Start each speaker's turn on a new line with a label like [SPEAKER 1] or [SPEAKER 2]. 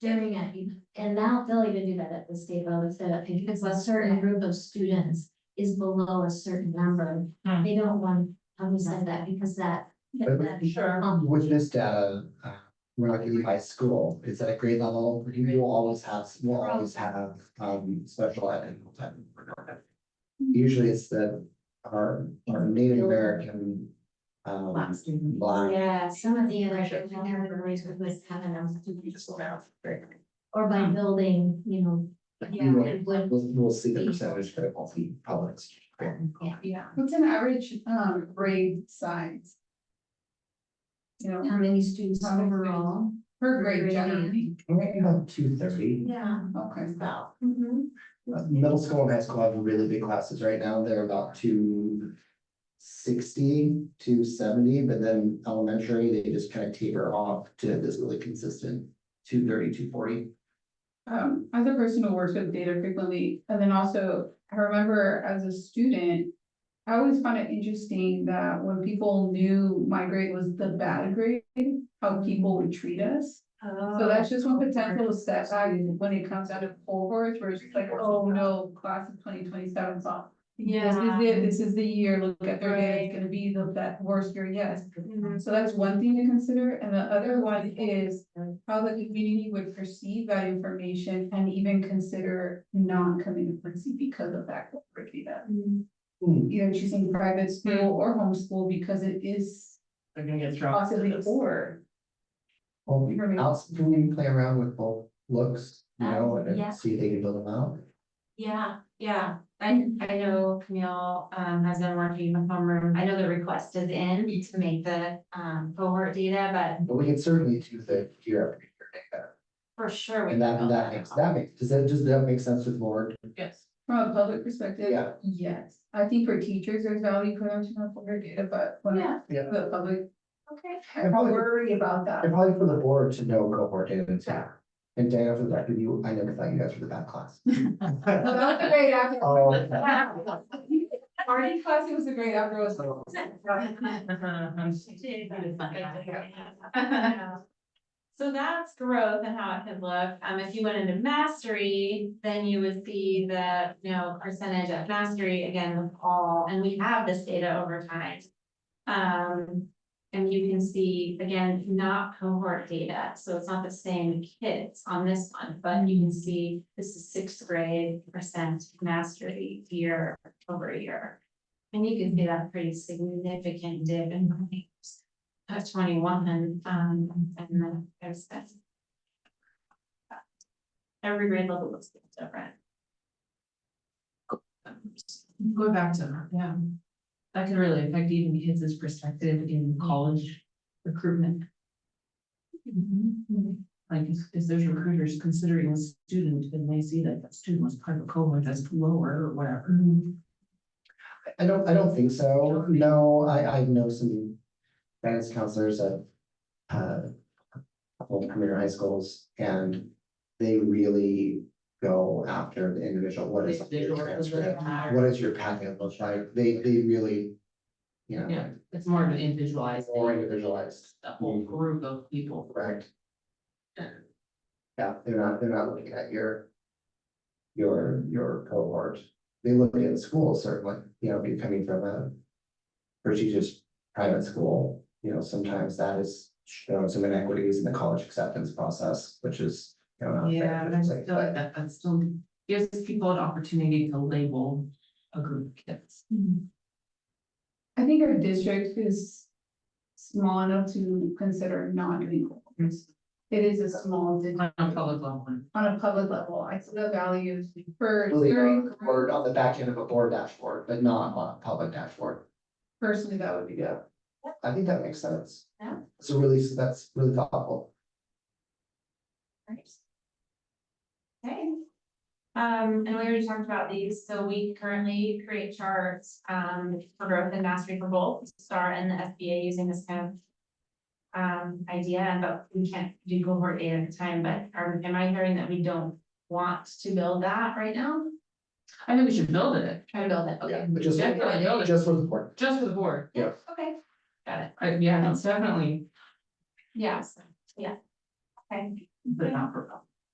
[SPEAKER 1] during it, and now they'll even do that at the state level, so because a certain group of students is below a certain number,
[SPEAKER 2] Hmm.
[SPEAKER 1] they don't want, I would say that because that.
[SPEAKER 3] But with-
[SPEAKER 1] that- um,
[SPEAKER 3] With this data, uh, we're not giving by school, it's at a grade level, you will always have, will always have, um, special ed and type. Usually it's the, our, our Native American, um, black.
[SPEAKER 1] Yeah, some of the other categories we would have enough to. Or by building, you know,
[SPEAKER 3] we will-
[SPEAKER 1] it would,
[SPEAKER 3] We'll, we'll see the percentage that will be public.
[SPEAKER 1] yeah.
[SPEAKER 4] Yeah, what's an average um grade size? You know,
[SPEAKER 1] How many students
[SPEAKER 4] How many
[SPEAKER 1] overall?
[SPEAKER 4] per grade
[SPEAKER 1] Grade, yeah.
[SPEAKER 4] generally,
[SPEAKER 3] Right about two thirty.
[SPEAKER 1] Yeah.
[SPEAKER 4] okay,
[SPEAKER 3] Now,
[SPEAKER 1] Mm-hmm.
[SPEAKER 3] uh, middle school and high school have really big classes right now, they're about two sixty to seventy, but then elementary, they just kind of taper off to this really consistent two thirty, two forty.
[SPEAKER 4] um, as a person who works with data frequently, and then also, I remember as a student. I always found it interesting that when people knew my grade was the bad grade, how people would treat us.
[SPEAKER 2] Oh,
[SPEAKER 4] So that's just one potential setback
[SPEAKER 1] Mm-hmm.
[SPEAKER 4] when it comes out of cohorts, where it's just like, oh no, class of twenty twenty-seven off. This is
[SPEAKER 2] Yeah.
[SPEAKER 4] the, this is the year, look at their day, it's gonna be the that worst year yet. So that's one thing to consider, and the other one is how the community would perceive that information and even consider non-commitment because of that corporate data. Either choosing private school or homeschool because it is
[SPEAKER 2] They're gonna get thrown.
[SPEAKER 4] possibly or.
[SPEAKER 3] Well, we can also can we play around with both looks, you know, and
[SPEAKER 2] Yeah.
[SPEAKER 3] then see if they can build them out.
[SPEAKER 2] Yeah, yeah, I, I know Camille, um, has been working with homeroom, I know the request is in to make the, um, cohort data, but
[SPEAKER 3] But we can certainly do the year after year data.
[SPEAKER 2] for sure. we
[SPEAKER 3] uh, And that,
[SPEAKER 2] can
[SPEAKER 3] and that
[SPEAKER 2] build
[SPEAKER 3] makes, that makes, does that, does that make sense with board?
[SPEAKER 2] Yes.
[SPEAKER 4] From a public perspective,
[SPEAKER 3] Yeah.
[SPEAKER 4] yes, I think for teachers, there's value for them to know corporate data, but when
[SPEAKER 2] Yeah.
[SPEAKER 3] Yeah.
[SPEAKER 4] the public,
[SPEAKER 2] Okay.
[SPEAKER 4] I worry about that.
[SPEAKER 3] And probably for the board to know cohort data too. And data for the fact that you, I never thought you guys were the bad class.
[SPEAKER 4] About the grade after.
[SPEAKER 3] Oh, okay.
[SPEAKER 4] Already class, it was a great after was.
[SPEAKER 5] Uh-huh,
[SPEAKER 2] So that's growth and how it could look. Um, if you went into mastery, then you would see the, you know, percentage of mastery again with all, and we have this data over time. Um, and you can see, again, not cohort data, so it's not the same kids on this one, but you can see this is sixth grade percent mastery year over year. And you can see that pretty significant dip in volumes. At twenty-one, um, and then there's that. Every grade level looks different.
[SPEAKER 5] Going back to that, yeah. That could really affect even kids' perspective in college recruitment. Mm-hmm. Like, if, if there's recruiters considering a student and they see that that student was part of a cohort that's lower or whatever.
[SPEAKER 3] I don't, I don't think so. No, I, I know some guidance counselors at, uh, couple of community high schools and they really go after the individual, what is your transcript? What is your packet look like? They, they really, you know,
[SPEAKER 5] Yeah, it's more of an individualized. thing.
[SPEAKER 3] more individualized.
[SPEAKER 5] A whole group of people.
[SPEAKER 3] Correct. Yeah, they're not, they're not looking at your. Your, your cohort, they look at school certainly, you know, if you're coming from a. Prestigious private school, you know, sometimes that is shown some inequities in the college acceptance process, which is, you know. not fair,
[SPEAKER 5] Yeah, but I
[SPEAKER 3] like,
[SPEAKER 5] feel like that, that still gives people an opportunity to label a group of kids.
[SPEAKER 4] I think our district is small enough to consider not doing corporates. It is a small, district.
[SPEAKER 5] On a public level.
[SPEAKER 4] on a public level, I see the values for
[SPEAKER 3] Really, uh,
[SPEAKER 4] very,
[SPEAKER 3] on- or on the back end of a board dashboard, but not on a public dashboard,
[SPEAKER 4] personally, that would be good.
[SPEAKER 3] I think that makes sense.
[SPEAKER 2] Yeah.
[SPEAKER 3] So really, that's really thoughtful.
[SPEAKER 2] Right. Okay. Um, and we already talked about these, so we currently create charts, um, for growth and mastery for both STAR and the SBA using this kind of. Um, idea, but we can't do cohort data at the time, but are, am I hearing that we don't want to build that right now?
[SPEAKER 5] I think we should build it,
[SPEAKER 2] Try to build it,
[SPEAKER 3] Yeah,
[SPEAKER 2] okay,
[SPEAKER 3] but just,
[SPEAKER 5] Definitely.
[SPEAKER 3] just for the board.
[SPEAKER 5] just for the board.
[SPEAKER 2] okay, got it,
[SPEAKER 5] I, yeah, it's definitely,
[SPEAKER 2] yes, yeah. Okay,
[SPEAKER 5] but not for.